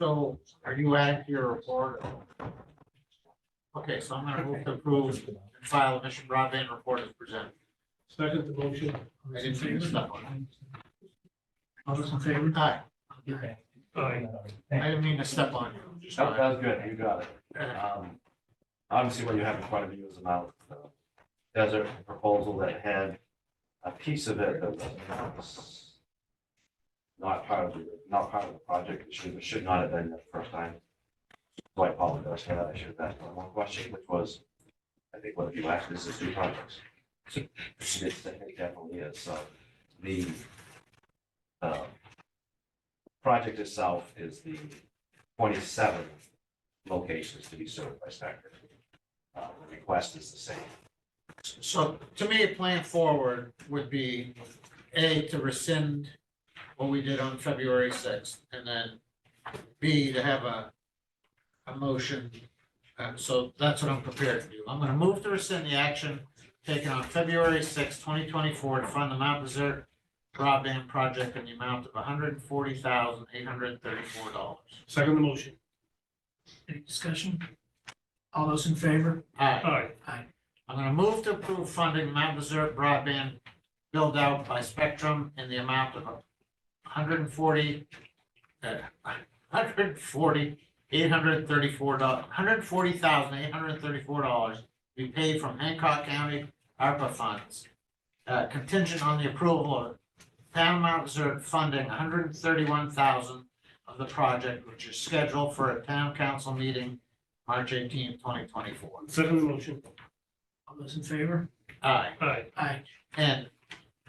So are you adding to your report? Okay, so I'm gonna move to approve and file the mission broadband report as presented. Second the motion. I didn't see this stuff on All those in favor? Hi, Aye. I didn't mean to step on you. Just That wanted- that was good, you got it. uh, Um, Obviously, what you have in front of you is about the desert proposal that had a piece of it that was not part of the, not part of the project, it should, it should not have been the first time. So I apologize for that, I should have asked one more question, which was, I think what you asked is the two projects. Yes, I think definitely is, uh, so the um, project itself is the twenty-seventh locations to be served by Stacker. Uh, the request is the same. So to me, a plan forward would be, A, to rescind what we did on February sixth, and then B, to have a, a motion. Uh, so that's what I'm prepared to do. I'm gonna move to rescind the action taken on February sixth, twenty twenty-four to fund the Mount Desert broadband project in the amount of hundred and forty thousand, eight hundred and thirty-four dollars. Second the motion. Any discussion? All those in favor? Aye. Aye. I'm gonna move to approve funding Mount Desert broadband build out by Spectrum in the amount of hundred and forty, uh, hundred and forty, eight hundred and thirty-four dollars, hundred and forty thousand, eight hundred and thirty-four dollars be paid from Hancock County ARPA funds. Uh, contingent on the approval of town Mount Desert funding hundred and thirty-one thousand of the project, which is scheduled for a town council meeting March eighteenth, twenty twenty-four. Second the motion. All those in favor? Aye. Aye. I, and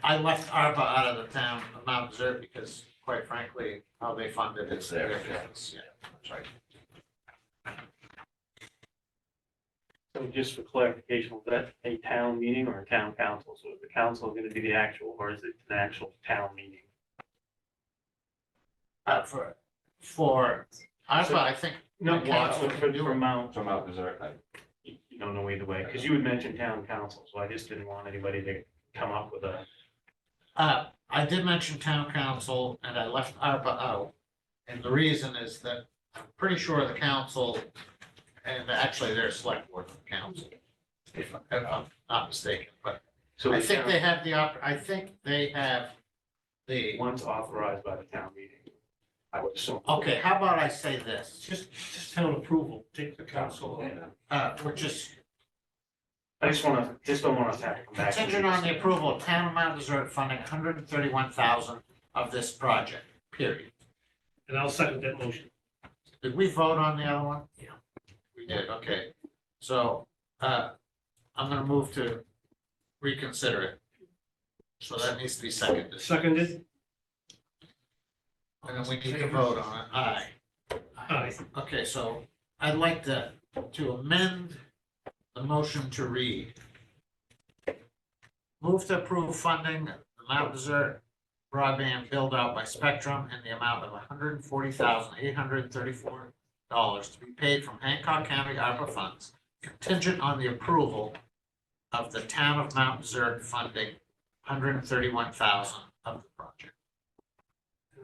I left ARPA out of the town of Mount Desert because quite frankly, how they funded it. It's their business. Yeah. That's right. So just for clarification, was that a town meeting or a town council? So is the council going to be the actual, or is it an actual town meeting? Uh, for, for ARPA, I think, No, council. For, for for Mount, So Mount Desert, I you you don't know either way, because you had mentioned town council, so I just didn't want anybody to come up with a, uh, I did mention town council and I left ARPA out. And the reason is that I'm pretty sure the council, and actually their select board of council, if I'm- if I'm not mistaken, but so I the think town, they have the, op- I think they have the. once authorized by the town meeting, I would assume. Okay, how about I say this, Just, just town approval, take the council. council, uh, which is I just want to, just don't want us to have to come back. and contingent on the revisit. approval of town of Mount Desert funding hundred and thirty-one thousand of this project, period. And I'll second that motion. Did we vote on the other one? Yeah. We did, okay. So, uh, I'm gonna move to reconsider it. So that needs to be seconded, Seconded? and then we need to vote on it, aye. Aye. Okay, so I'd like to, to amend the motion to read. Move to approve funding the Mount Desert broadband build out by Spectrum in the amount of hundred and forty thousand, eight hundred and thirty-four dollars to be paid from Hancock County ARPA funds contingent on the approval of the town of Mount Desert funding hundred and thirty-one thousand of the project.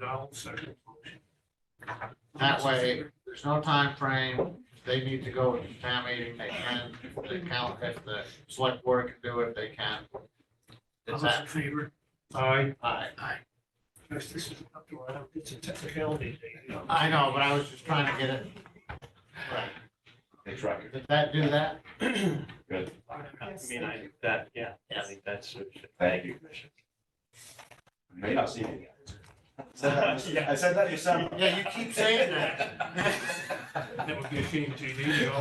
And I'll second the motion. That way, there's no time frame. If They need to go to town meeting, they can, if the count, if the select board can do it, they can. All Is those in that, favor? Aye. I, Yes, this is up to, I don't, it's a technicality. I know, but I was just trying to get it. Right. It's right. Did that do that? Good. I mean, I, that, yeah, I think that's. Thank you, Commissioner. You May not see me again. I said that yourself. Yeah, you keep saying that. That would be a shame, JD, you know.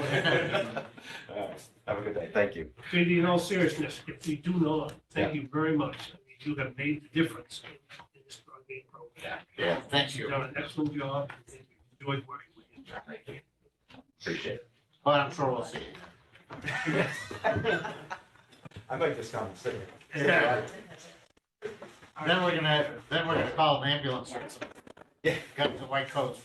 All right. Have a good day. Thank you. JD, in all seriousness, if we do not, thank you very much. I mean, You have made the difference in this broadband program. Yeah, thank You've you. done an excellent job. and Enjoyed working with you. Appreciate it. But I'm sure we'll see. I make this comment, sit here. Yeah. Then we're gonna, then we're gonna call an ambulance. Yeah. Got the white coats.